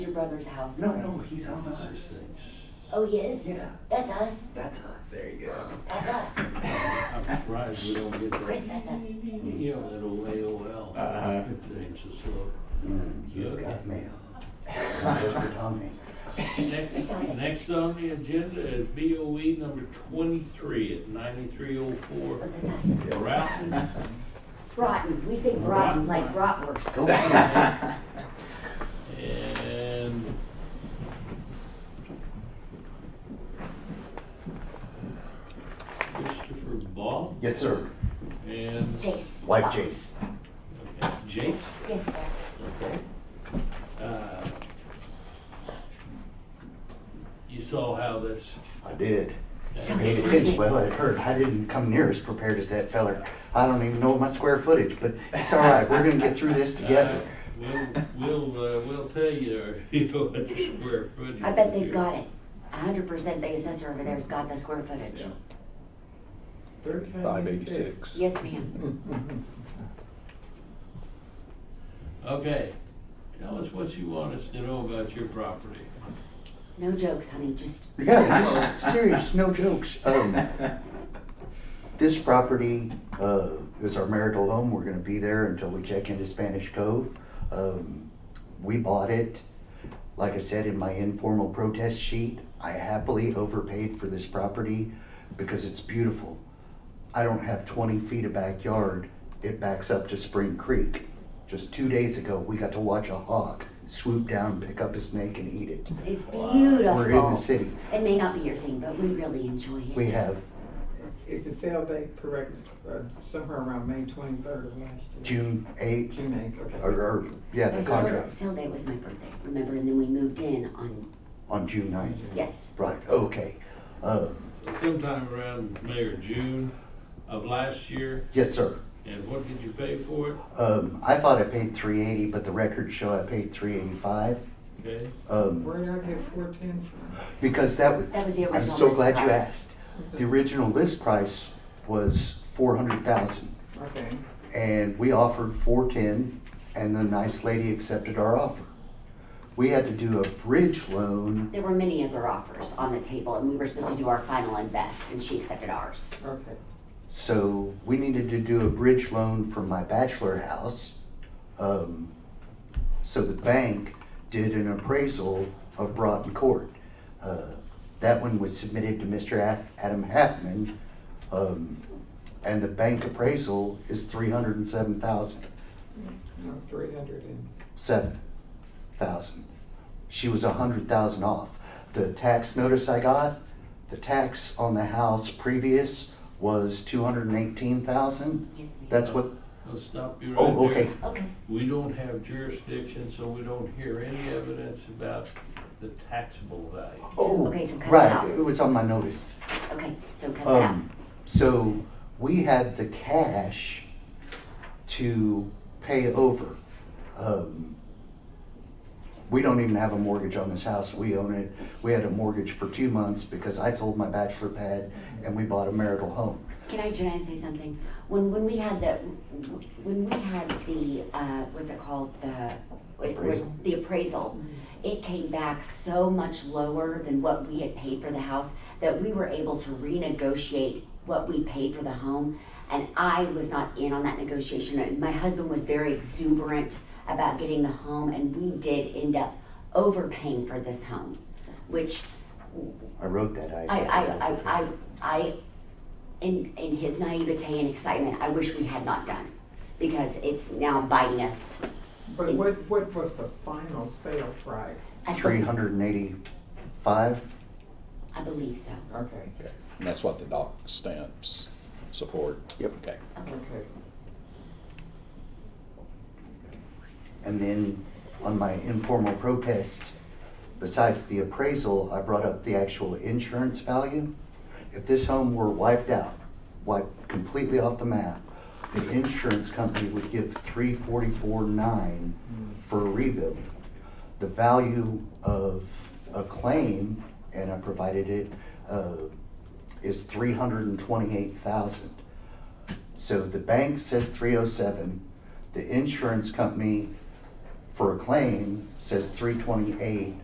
Your brother's house. No, no, Chris. he's on us. Oh, he is? Yeah, That's us. that's us. There you go. That's us. I'm surprised we don't get Chris, that, E that's us. you know, that old AOL. Uh-huh. If things are slow. Mm, You've got mail. Mr. Tommy. Next, next on the agenda is BOE number twenty-three at ninety-three oh Oh, four. that's us. Route, Rotten. We say rotten Rotten. like bratwurst. Go on. and Christopher Ball Yes, sir. and, Jace. Wife Fuck. Jace. okay, Jake, Yes, sir. okay. Uh, You saw how this, I did. I So paid excited. attention. Well, it hurt. I didn't come near as prepared as that feller. I don't even know my square footage, but it's all right. We're gonna get through this together. uh, We'll, we'll, uh, we'll tell you, you know, what your square footage. I bet they've is. got it. A hundred percent the assessor over there's got the square footage. Yeah. Five eighty-six. Yes, ma'am. Okay, tell us what you want us to know about your property. No jokes, honey. Just Yeah, this- serious, no jokes. Um, this property, uh, is our marital home. We're gonna be there until we check into Spanish Cove. Um, we bought it, like I said in my informal protest sheet, I happily overpaid for this property because it's beautiful. I don't have twenty feet of backyard. It backs up to Spring Creek. Just two days ago, we got to watch a hawk swoop down, pick up a snake and eat it. it's beautiful. We're in the city. It may not be your thing, but we really enjoy it. We have Is the sale date correct, uh, somewhere around May twenty-third of last year? June eighth, June eighth, okay. or, or, yeah, Our the sale- contract Sale day was my birthday, remember? And then we moved in on, on June ninth. yes. Right, okay. Uh, So Sometime around May or June of last year, yes, sir. and what did you pay for it? Um, I thought I paid three eighty, but the records show I paid three eighty-five. Okay, Um, Where did I get four ten from? because that was, That was the I'm original so list glad you price. asked. The original list price was four hundred thousand, Okay, and we offered four-ten, and the nice lady accepted our offer. We had to do a bridge loan, There were many other offers on the table, and we were supposed to do our final and best, and she accepted ours. okay. so we needed to do a bridge loan for my bachelor house. Um, So the bank did an appraisal of Broughton Court. Uh, That one was submitted to Mr. Ath- Adam Halfman, um, and the bank appraisal is three hundred and seven thousand, No, three hundred and, seven thousand. She was a hundred thousand off. The tax notice I got, the tax on the house previous was two hundred and eighteen thousand. Yes, ma'am. That's what, let's stop you right there. oh, okay, Okay, We don't have jurisdiction, so we don't hear any evidence about the taxable value. oh, Okay, so cut it out. right, it was on my notice. okay, so cut that out. Um, so we had the cash to pay over. Um, we don't even have a mortgage on this house. We own it. We had a mortgage for two months because I sold my bachelor pad and we bought a marital home. Can I, can I say something? When, when we had the, when we had the, uh, what's it called, the, wait, wait, Appraisal? the appraisal, it came back so much lower than what we had paid for the house that we were able to renegotiate what we paid for the home. And I was not in on that negotiation. And my husband was very exuberant about getting the home, and we did end up overpaying for this home, which I wrote that. I, I, I, I, I, in, in his naivete and excitement, I wish we had not done, because it's now biting us. but what, what was the final sale price? I Three believe, hundred and eighty-five. I believe so. Okay, And that's what the doc stamps support. Yep. Okay. Okay. okay. And then on my informal protest, besides the appraisal, I brought up the actual insurance value. If this home were wiped out, wiped completely off the map, the insurance company would give three forty-four nine for a rebuild. The value of a claim, and I provided it, uh, is three hundred and twenty-eight thousand. So the bank says three oh seven, the insurance company for a claim says three twenty-eight